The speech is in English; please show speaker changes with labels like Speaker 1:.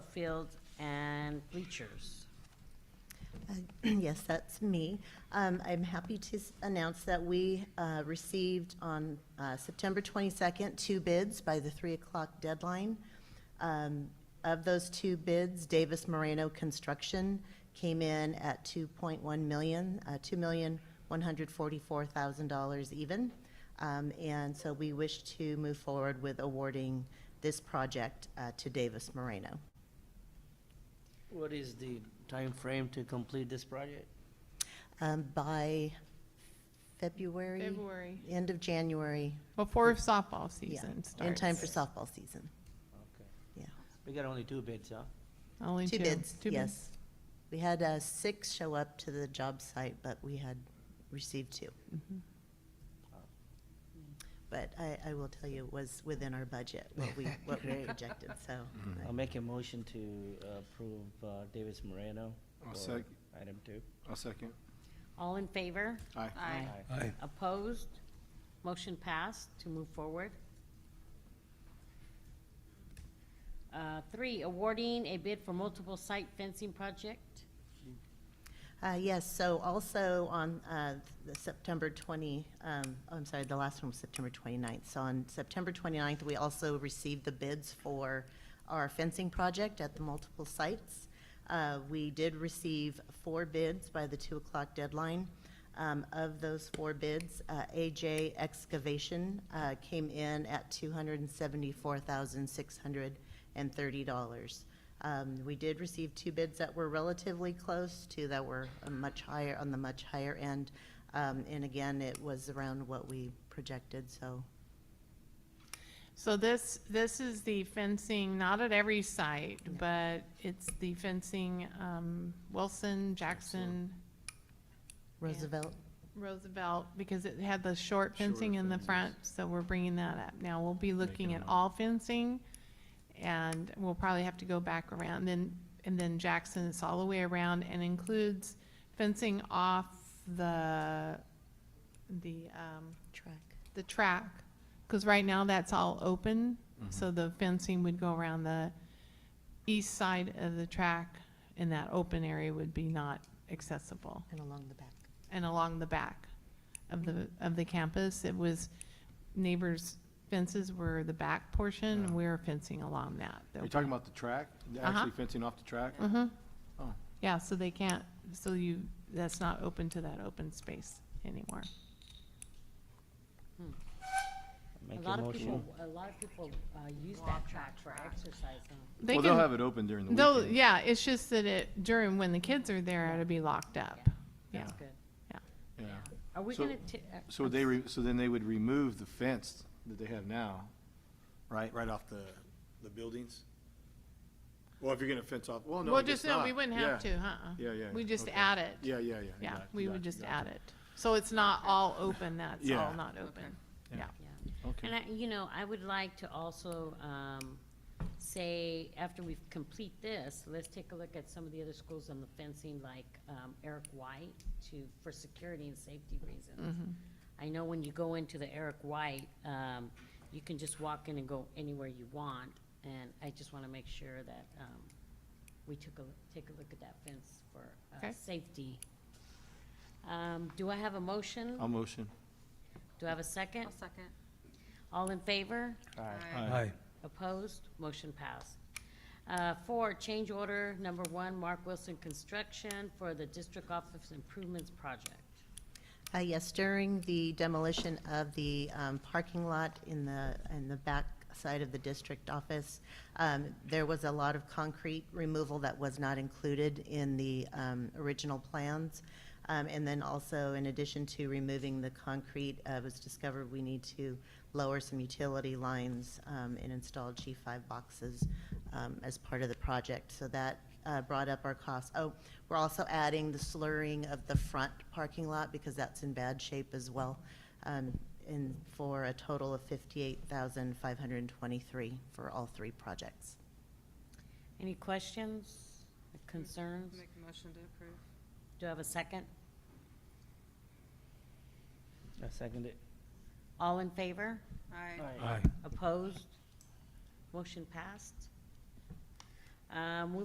Speaker 1: field and bleachers.
Speaker 2: Uh, Yes, that's me. Um, I'm happy to s- announce that we uh, received on uh, September 22nd, two bids by the 3 o'clock deadline. Um, Of those two bids, Davis Moreno Construction came in at 2.1 million, uh, $2,144,000 even. Um, And so we wish to move forward with awarding this project uh, to Davis Moreno.
Speaker 3: What is the time frame to complete this project?
Speaker 2: Um, By February?
Speaker 4: February,
Speaker 2: end of January,
Speaker 4: before softball
Speaker 2: yeah,
Speaker 4: season starts.
Speaker 2: in time for softball season,
Speaker 3: Okay,
Speaker 2: yeah.
Speaker 3: we got only two bids, huh?
Speaker 4: Only
Speaker 2: Two
Speaker 4: two.
Speaker 2: bids,
Speaker 4: Two
Speaker 2: yes. We had uh, six show up to the job site, but we had received two.
Speaker 4: Mm-hmm.
Speaker 2: But I, I will tell you, it was within our budget, what we, what we projected, so.
Speaker 3: I'll make a motion to uh, approve uh, Davis Moreno.
Speaker 5: I'll
Speaker 3: for
Speaker 5: sec-
Speaker 3: Item two.
Speaker 5: I'll second.
Speaker 1: All in favor?
Speaker 5: Aye.
Speaker 6: Aye.
Speaker 7: Aye.
Speaker 1: Opposed? Motion passed to move forward. Uh, Three, awarding a bid for multiple site fencing project.
Speaker 2: Uh, Yes, so also on uh, the September 20, um, oh, I'm sorry, the last one was September 29th. So on September 29th, we also received the bids for our fencing project at the multiple sites. Uh, We did receive four bids by the 2 o'clock deadline. Um, Of those four bids, uh, AJ Excavation uh, came in at $274,630. Um, We did receive two bids that were relatively close, two that were uh, much higher, on the much higher end. Um, And again, it was around what we projected, so,
Speaker 4: So this, this is the fencing, not at every site, but it's the fencing, um, Wilson, Jackson,
Speaker 2: Roosevelt,
Speaker 4: Roosevelt, because it had the short fencing in the front, so we're bringing that up. Now, we'll be looking at all fencing, and we'll probably have to go back around, then, and then Jackson, it's all the way around, and includes fencing off the, the, um,
Speaker 2: track.
Speaker 4: the track, because right now that's all open,
Speaker 5: Mm-hmm.
Speaker 4: so the fencing would go around the east side of the track, and that open area would be not accessible.
Speaker 2: And along the back.
Speaker 4: And along the back of the, of the campus, it was neighbors' fences were the back portion, and we were fencing along that.
Speaker 5: Are you talking about the track?
Speaker 4: Uh-huh.
Speaker 5: Actually fencing off the track?
Speaker 4: hmm
Speaker 5: Oh.
Speaker 4: Yeah, so they can't, so you, that's not open to that open space anymore.
Speaker 3: Make
Speaker 1: A lot of
Speaker 3: motion.
Speaker 1: people, a lot of people uh, use that track for exercise. huh?
Speaker 4: They
Speaker 5: Well, they'll
Speaker 4: can-
Speaker 5: have it open during the
Speaker 4: Though,
Speaker 5: weekend.
Speaker 4: yeah, it's just that it, during, when the kids are there, it'll be locked up. Yeah,
Speaker 1: That's good.
Speaker 5: Yeah.
Speaker 1: Are we
Speaker 5: So-
Speaker 1: gonna? ta- uh,
Speaker 5: So they, re- so then they would remove the fence that they have now, right, right off the, the buildings? Well, if you're gonna fence off, well, no, I
Speaker 4: Well,
Speaker 5: guess
Speaker 4: just, no, we
Speaker 5: not.
Speaker 4: wouldn't have
Speaker 5: Yeah.
Speaker 4: to, uh-uh.
Speaker 5: Yeah, yeah.
Speaker 4: We just
Speaker 5: okay.
Speaker 4: add it.
Speaker 5: Yeah, yeah, yeah.
Speaker 4: Yeah,
Speaker 5: got it,
Speaker 4: we
Speaker 5: got
Speaker 4: would
Speaker 5: it,
Speaker 4: just
Speaker 5: got
Speaker 4: add it. So it's not all open, that's all
Speaker 5: Yeah.
Speaker 4: not open. Yeah,
Speaker 1: Yeah. And
Speaker 5: Okay,
Speaker 1: I, you know, I would like to also, um, say, after we complete this, let's take a look at some of the other schools on the fencing, like, um, Eric White to, for security and safety reasons. I know when you go into the Eric White, um, you can just walk in and go anywhere you want, and I just wanna make sure that, um, we took a, take a look at that fence for, uh,
Speaker 4: Okay.
Speaker 1: safety. Um, do I have a motion?
Speaker 5: I'll motion.
Speaker 1: Do I have a second?
Speaker 6: I'll second.
Speaker 1: All in favor?
Speaker 6: Aye.
Speaker 7: Aye.
Speaker 1: Opposed? Motion passed. Uh, Four, change order number one, Mark Wilson Construction for the District Office Improvements Project.
Speaker 2: Uh, Yes, during the demolition of the um, parking lot in the, in the back side of the district office, um, there was a lot of concrete removal that was not included in the um, original plans. Um, And then also, in addition to removing the concrete, uh, it was discovered we need to lower some utility lines um, and install G5 boxes um, as part of the project. So that uh, brought up our costs. Oh, we're also adding the slurring of the front parking lot because that's in bad shape as well, um, and for a total of fifty-eight thousand five hundred and twenty-three for all three projects.
Speaker 1: Any questions, concerns?
Speaker 6: Make a motion to approve.
Speaker 1: Do I have a second?
Speaker 3: I second it.
Speaker 1: All in favor?
Speaker 6: Aye.
Speaker 7: Aye.
Speaker 1: Opposed? Motion passed. Um,